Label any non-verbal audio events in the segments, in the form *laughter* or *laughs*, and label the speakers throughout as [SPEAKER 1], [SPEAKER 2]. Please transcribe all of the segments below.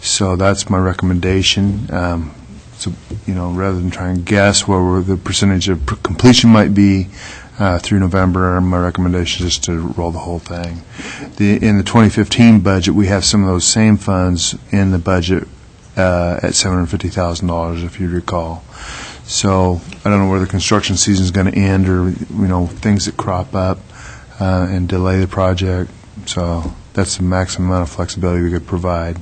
[SPEAKER 1] So that's my recommendation. Um, So, you know, rather than try and guess where we're- the percentage of completion might be uh, through November, my recommendation is to roll the whole thing. The, in the 2015 budget, we have some of those same funds in the budget uh, at $750,000, if you recall. So I don't know where the construction season's going to end, or, you know, things that crop up uh, and delay the project. So that's the maximum amount of flexibility we could provide.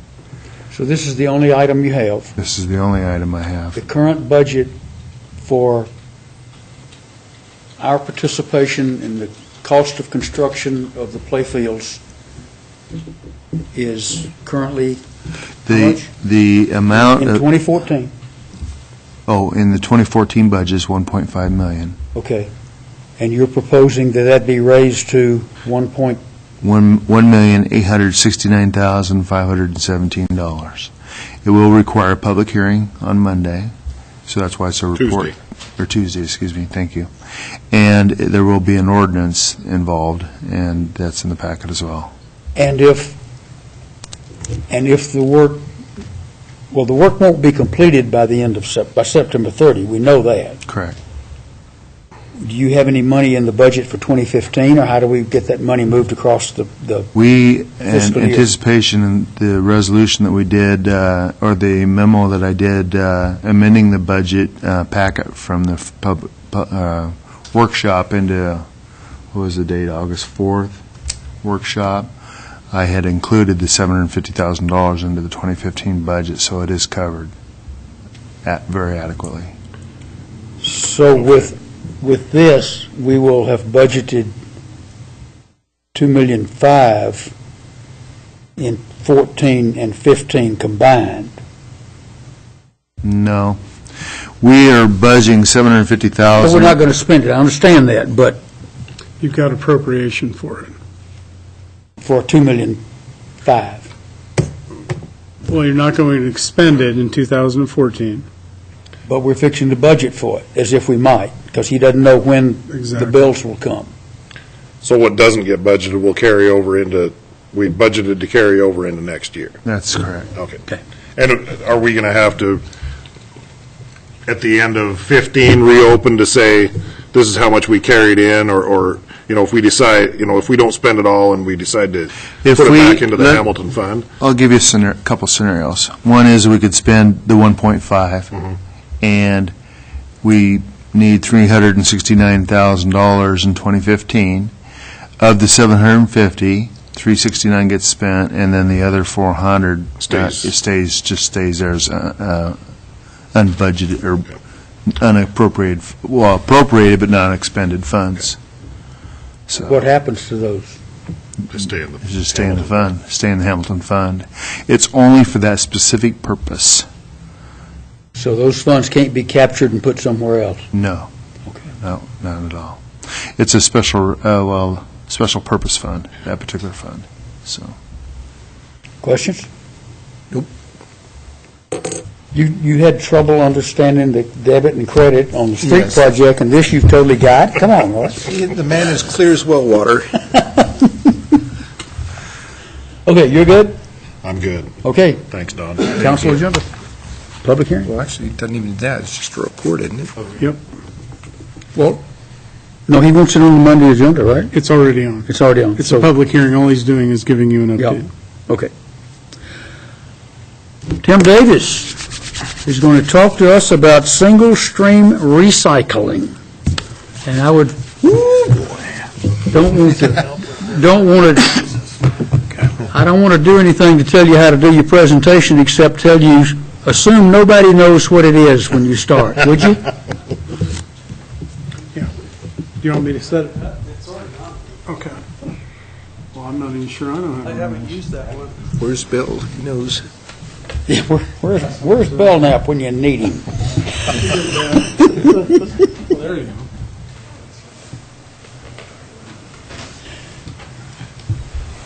[SPEAKER 2] So this is the only item you have.
[SPEAKER 1] This is the only item I
[SPEAKER 2] The
[SPEAKER 1] have.
[SPEAKER 2] current budget for our participation in the cost of construction of the playfields is currently How
[SPEAKER 1] The,
[SPEAKER 2] much?
[SPEAKER 1] the
[SPEAKER 2] in
[SPEAKER 1] amount, of-
[SPEAKER 2] 2014.
[SPEAKER 1] oh, in the 2014 budget is 1.5 million.
[SPEAKER 2] Okay. And you're proposing that that be raised to 1.2?
[SPEAKER 1] One one million eight hundred sixty-nine thousand five hundred and seventeen dollars. It will require a public hearing on Monday, so that's why it's a report. Or Tuesday, excuse me, thank you. And there will be an ordinance involved, and that's in the packet as well.
[SPEAKER 2] And if, and if the work, well, the work won't be completed by the end of, Sep- by September 30, we know that.
[SPEAKER 1] Correct.
[SPEAKER 2] Do you have any money in the budget for 2015, or how do we get that money moved across the, the?
[SPEAKER 1] We, in
[SPEAKER 2] Fiscal year.
[SPEAKER 1] anticipation, in the resolution that we did, uh, or the memo that I did uh, amending the budget uh, packet from the f- pub- pu- uh, workshop into, what was the date, August 4th workshop, I had included the $750,000 into the 2015 budget, so it is covered at, very adequately.
[SPEAKER 2] So with, with this, we will have budgeted 2 million five in 14 and 15 combined.
[SPEAKER 1] No. We are budgeting
[SPEAKER 2] But we're not
[SPEAKER 1] $750,000.
[SPEAKER 2] going to spend it, I understand that, but
[SPEAKER 3] You've got appropriation for it.
[SPEAKER 2] for 2 million five.
[SPEAKER 3] Well, you're not going to expend it in 2014.
[SPEAKER 2] But we're fixing the budget for it, as if we might, because he doesn't know when the
[SPEAKER 3] Exactly.
[SPEAKER 2] bills will come.
[SPEAKER 4] So what doesn't get budgeted will carry over into, we budgeted to carry over into next year.
[SPEAKER 1] That's correct.
[SPEAKER 4] Okay.
[SPEAKER 2] Okay.
[SPEAKER 4] And are we going to have to, at the end of 15, reopen to say, this is how much we carried in, or, or, you know, if we decide, you know, if we don't spend it all and we decide to
[SPEAKER 1] If
[SPEAKER 4] put it
[SPEAKER 1] we
[SPEAKER 4] back into the
[SPEAKER 1] let-
[SPEAKER 4] Hamilton fund?
[SPEAKER 1] I'll give you a scenar- couple scenarios. One is we could spend the 1.5, and we need $369,000 in 2015. Of the 750, 369 gets spent, and then the other 400 uh,
[SPEAKER 4] Stays.
[SPEAKER 1] it stays, just stays there as uh, uh, unbudgeted or unappropriated, f- well, appropriated but not expended funds. So.
[SPEAKER 2] What happens to those?
[SPEAKER 4] Just stay in the.
[SPEAKER 1] It's Just stay in the fund, stay in the Hamilton Fund. It's only for that specific purpose.
[SPEAKER 2] So those funds can't be captured and put somewhere else?
[SPEAKER 1] No.
[SPEAKER 2] Okay.
[SPEAKER 1] No, not at all. It's a special, uh, well, special purpose fund, that particular fund, so.
[SPEAKER 2] Questions? You, you had trouble understanding the debit and credit on the street
[SPEAKER 5] Yes.
[SPEAKER 2] project, and this you've totally got? Come on, Ross.
[SPEAKER 5] The man is clear as well water.
[SPEAKER 2] Okay, you're good?
[SPEAKER 4] I'm good.
[SPEAKER 2] Okay,
[SPEAKER 4] Thanks, Don.
[SPEAKER 2] council agenda, public hearing?
[SPEAKER 5] Well, actually, it doesn't even do that, it's just a report, isn't it?
[SPEAKER 3] Yep,
[SPEAKER 2] Well. No, he wants it on the Monday agenda, right?
[SPEAKER 3] it's already on.
[SPEAKER 2] It's already on.
[SPEAKER 3] It's a public hearing, all he's doing is giving you an
[SPEAKER 2] Yeah,
[SPEAKER 3] update.
[SPEAKER 2] okay. Tim Davis is going to talk to us about single-stream recycling. And I would, don't want to, don't want to, I don't want to do anything to tell you how to do your presentation, except tell you, assume nobody knows what it is when you start, would you?
[SPEAKER 3] Do you want me to set it? It's already on. Okay. Well, I'm not even sure, I don't have. I haven't used that one.
[SPEAKER 5] Where's Bill? He knows.
[SPEAKER 2] Yeah, where- *laughs* Where's, where's Belknap when you need him?
[SPEAKER 3] There you go.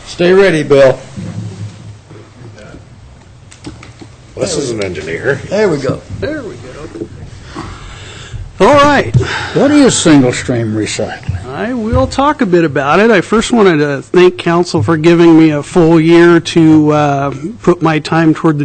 [SPEAKER 2] Stay ready, Bill.
[SPEAKER 4] This is an engineer.
[SPEAKER 2] There we go. There we go. All right. What is single stream recycling?
[SPEAKER 3] I will talk a bit about it. I first wanted to thank council for giving me a full year to uh, put my time toward the